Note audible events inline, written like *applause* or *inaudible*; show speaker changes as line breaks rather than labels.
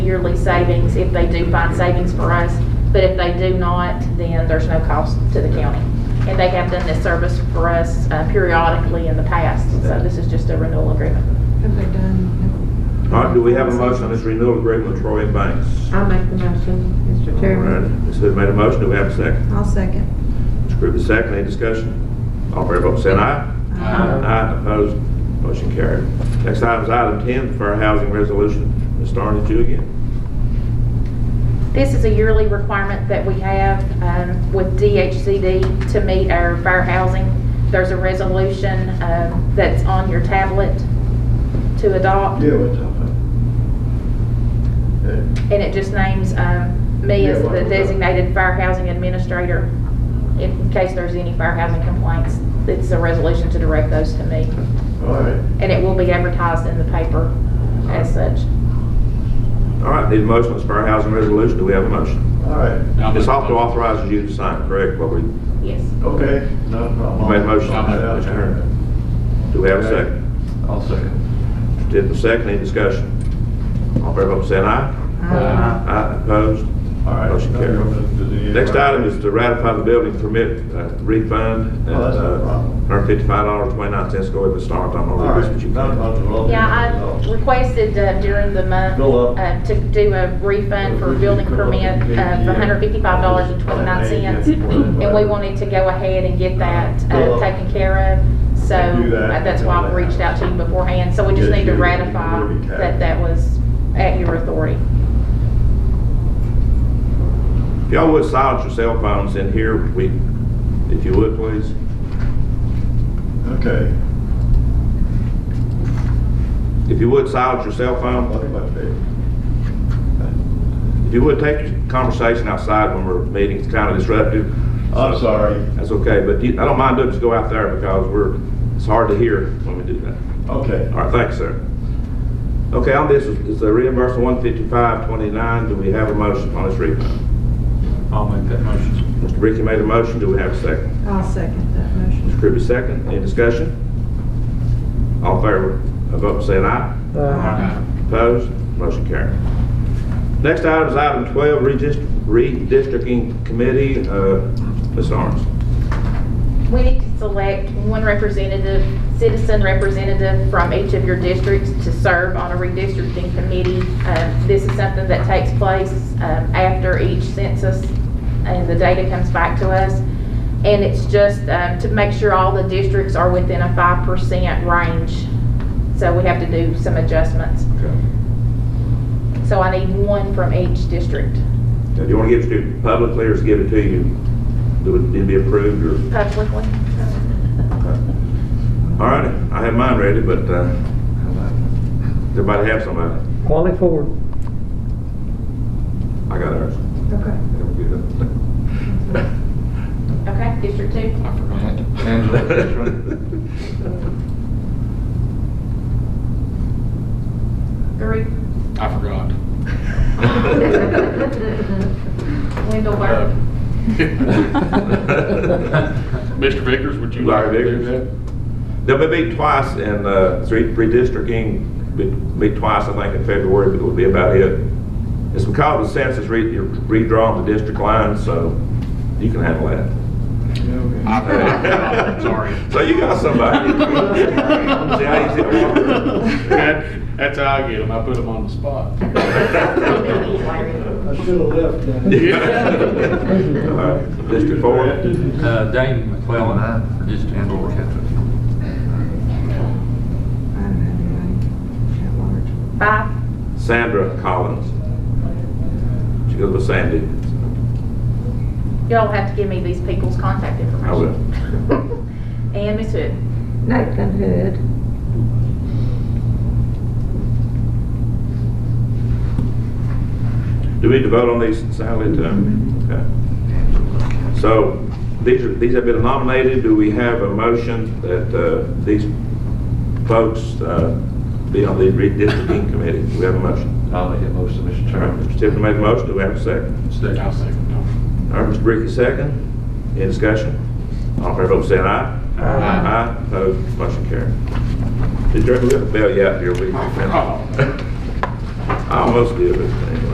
yearly savings if they do find savings for us. But if they do not, then there's no cost to the county. And they have done this service for us uh, periodically in the past, so this is just a renewal agreement.
Have they done?
All right, do we have a motion on this renewal agreement with Troy and Banks?
I'll make the motion, Uh, Mr.
All right,
Chairman.
Ms. Hood made a motion, do we have a second?
I'll second.
Ms. Krueger, second, any discussion? All fair and voting saying aye? Aye, opposed, motion carried. Next item is item 10, fair housing resolution. Ms. Starnes, it's you again.
This is a yearly requirement that we have um, with DHCD to meet our fair housing. There's a resolution um, that's on your tablet to adopt.
Yeah, we talked about.
And it just names um, me as
Yeah, what
the
was that?
designated fair housing administrator in case there's any fair housing complaints. It's a resolution to direct those to me.
All right.
And it will be advertised in the paper as such.
All right, need a motion on this fair housing resolution, do we have a motion?
All right,
I'll
Ms.
make-
Hoffman authorizes you to sign, correct, what we,
Yes.
okay, no problem.
You made a motion.
I'll make that turn.
do we have a second?
I'll second.
Did the second, any discussion? All fair and voting saying aye?
Uh,
Aye.
Aye, opposed,
All right.
Motion carried. Next item is to ratify the building permit uh, refund. uh,
Oh, that's no problem.
Hundred fifty-five dollars, twenty-nine cents, go ahead and start, I'm
All
gonna read
right,
this, but you
not
can.
about the law.
Yeah, I requested uh, during the month
Go up.
uh, to do a refund for a building permit uh, of
uh,
$155.29. And we wanted to go ahead and get that
Go
uh,
up.
taken care of. So
Do that.
uh, that's why I reached out to you beforehand. So we just
Yes,
need to
you- you
ratify
already tagged.
that that was at your authority.
If y'all would silence your cell phones in here, we, if you would, please.
Okay.
If you would, silence your cell phone.
Look at my face.
*laughs* If you would, take your conversation outside when we're meeting, it's kind of disruptive.
Oh, I'm sorry.
That's okay, but you- I don't mind doing, just go out there because we're, it's hard to hear when we do that.
Okay.
*laughs*
*laughs*
All right, thanks, sir. Okay, on this, is the reimbursement one fifty-five twenty-nine, do we have a motion on this refund?
I'll make that motion.
Mr. Ricky made a motion, do we have a second?
I'll second that motion.
Mr. Kirby, second, any discussion? All in favor, vote saying aye. Opposed? Motion carried. Next item is item 12, redist- redistricting committee, uh, Ms. Arms.
We need to select one representative, citizen representative from each of your districts to serve on a redistricting committee. Uh, This is something that takes place um, after each census and the data comes back to us. And it's just um, to make sure all the districts are within a 5% range. So we have to do some adjustments. So I need one from each district
Do you want to give it to publicly or just give it to you? Do it, it'd be approved or?
publicly.
All righty, I have mine ready, but, uh, everybody have somebody?
Wally Ford.
I got ours.
Okay.
*laughs*
Okay, District 2?
I forgot. Angela, that's right.
Three.
I forgot.
Wendell Burke.
*laughs* Mr. Vickers, would you like
Larry
to do
Vickers.
that?
They'll be meet twice and, uh, three, redistricting, be- meet twice, I think, in February, but it'll be about it. It's because the census re- redrawn the district lines, so you can handle that.
I forgot,
*laughs*
sorry.
So you got somebody. See how easy it was?
That- That's how I get them, I put them on the spot.
I should have left that.
Yeah.
All right, District four.
Uh, Dane McClellan, for District Four.
I don't have anybody at large.
Five.
Sandra Collins. She goes with Sandy.
Y'all have to give me these people's contact information.
I will.
*laughs* And Ms. Hood.
Nathan Hood.
Do we need to vote on these, Sally, too? Okay. So, these are, these have been nominated. Do we have a motion that, uh, these folks, uh, be on the redistricting committee? Do we have a motion?
I'll make that motion, Mr.
All right,
Chairman.
Mr. Tiffany made a motion. Do we have a second?
I'll second
All right, Mr. Ricky, second. Any discussion? All in favor, vote saying aye. Aye. Aye, opposed,
*laughs* Oh.
motion carried. Did you ever bail you out here? We-
that. Oh.
I almost did, but uh, anyway.